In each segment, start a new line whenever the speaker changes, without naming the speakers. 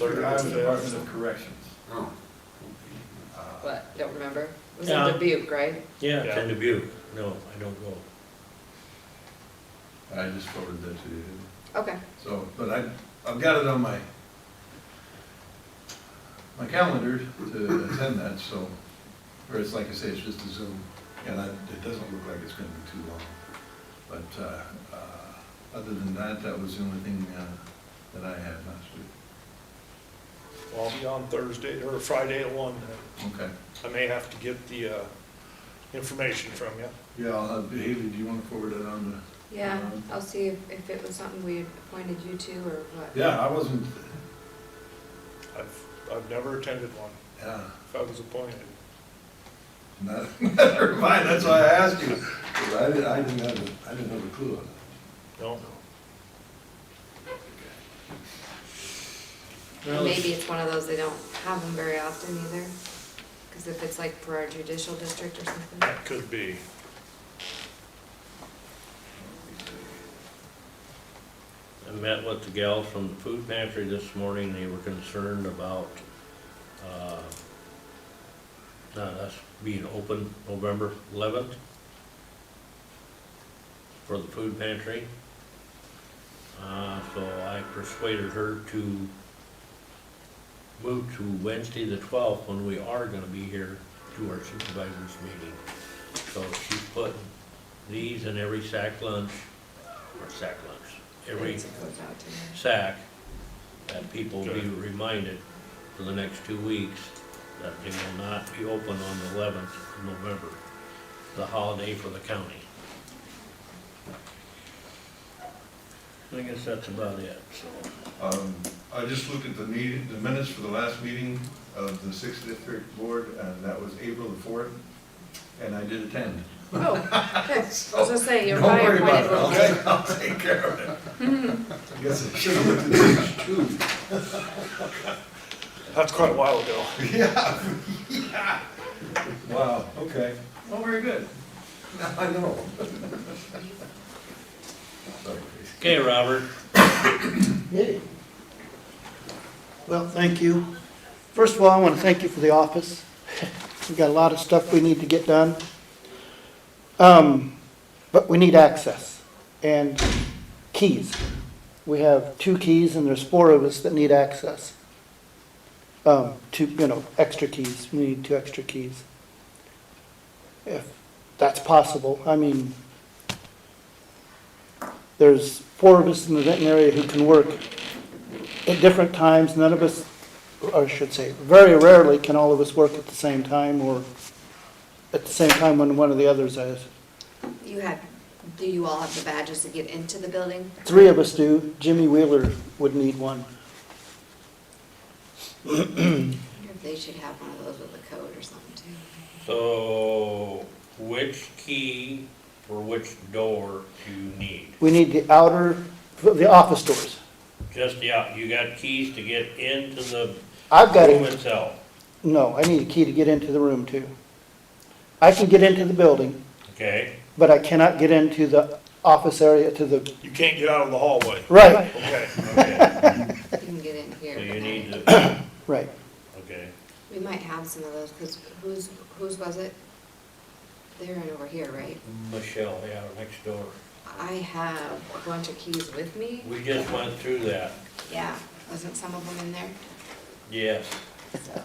Clerk
Iowa
of the
Department
Department
of Corrections.
Oh,
Uh,
What, don't remember? It was
Yeah.
in Dubuque, right?
Yeah, it's
Yeah.
in Dubuque. No, I don't go.
I just forwarded that to you.
Okay,
So, but I, I've got it on my, my calendar to attend that, so, or it's like I say, it's just a Zoom, and I- it doesn't look like it's gonna be too long. But, uh, uh, other than that, that was the only thing, uh, that I had last week.
Well, I'll be on Thursday, or Friday at one,
Okay.
I may have to get the, uh, information from you.
Yeah, I'll have- Haley, do you wanna forward it on to?
yeah,
Um,
I'll see if, if it was something we had appointed you to or what.
Yeah, I wasn't,
I've, I've never attended one,
yeah,
if I was appointed.
not, never mind, that's why I asked you. 'cause I didn't, I didn't have, a- I didn't have a clue on that.
No,
And Maybe it's one of those, they don't have them very often either, because if it's like for our judicial district or something.
that could be.
I met with the gals from the food pantry this morning, they were concerned about, uh, uh, us being open November eleventh for the food pantry. Uh, so I persuaded her to move to Wednesday the twelfth, when we are gonna be here to our supervisors meeting. So she put these in every sack lunch, or sack lunch, every
It goes out to them.
sack, that people be
Good.
reminded for the next two weeks that they will not be open on the eleventh of November, the holiday for the county. I guess that's about it, so.
Um, I just looked at the meeting, the minutes for the last meeting of the Sixth District Board, and that was April the fourth, and I did attend.
Oh, okay, I was gonna say, you're
Don't
probably
worry about
appointed.
it,
one.
okay? I'll take care of it. I guess I should have looked at page two.
That's quite a while ago.
Yeah, yeah. Wow, okay. Oh, very good. Now I know. Sorry.
Okay, Robert,
Yay. Well, thank you. First of all, I want to thank you for the office. We've got a lot of stuff we need to get done. Um, But we need access and keys. We have two keys and there's four of us that need access. Um, Two, you know, extra keys. We need two extra keys. If that's possible. I mean, there's four of us in the Denton area who can work at different times. None of us, or I should say, very rarely can all of us work at the same time or at the same time when one of the others is.
You had, do you all have the badges to get into the building?
Three of us do. Jimmy Wheeler would need one.
They should have one of those with a code or something too.
so which key for which door do you need?
We need the outer, the office doors.
Just, yeah, you got keys to get into the
I've got
room
it.
itself,
No, I need a key to get into the room too. I can get into the building,
okay?
but I cannot get into the office area to the,
You can't get out of the hallway.
right,
Okay,
Okay,
You can get in here.
so you
but
need
not-
to,
right.
okay.
We might have some of those, because whose, whose was it? They're in over here, right?
Michelle, yeah, next door.
I have a bunch of keys with me.
We just went through that,
Yeah, wasn't some of them in there?
yes.
So,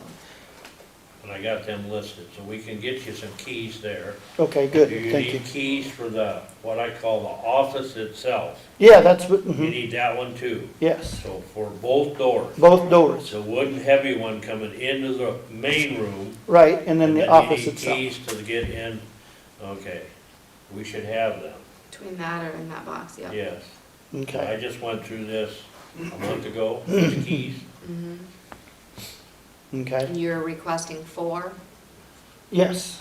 And I got them listed, so we can get you some keys there.
Okay, good,
Do you
thank you.
need keys for the, what I call the office itself?
Yeah, that's what,
You
mhm,
need that one too,
yes,
so for both doors.
both doors,
It's a wooden heavy one coming into the main room.
right, and then the
you
office
need
itself.
Keys to get in, okay, we should have them,
Between that or in that box, yeah.
yes. I
Okay,
just went through this a month ago, the keys,
Mhm.
okay,
And you're requesting four?
yes,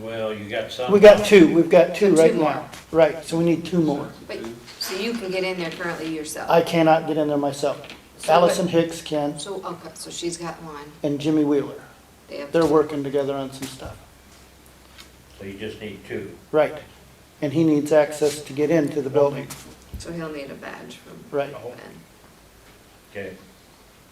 well, you got some.
we got two, we've got
So
two
two
right
more.
now, right, so we need two more.
But, so you can get in there currently yourself?
I cannot get in there myself.
So,
Allison Hicks can,
but- So, okay, so she's got one.
and Jimmy Wheeler,
They have
they're
two.
working together on some stuff,
So you just need two.
right, and he needs access to get into the building,
So he'll need a badge from
right,
Ben.
Okay,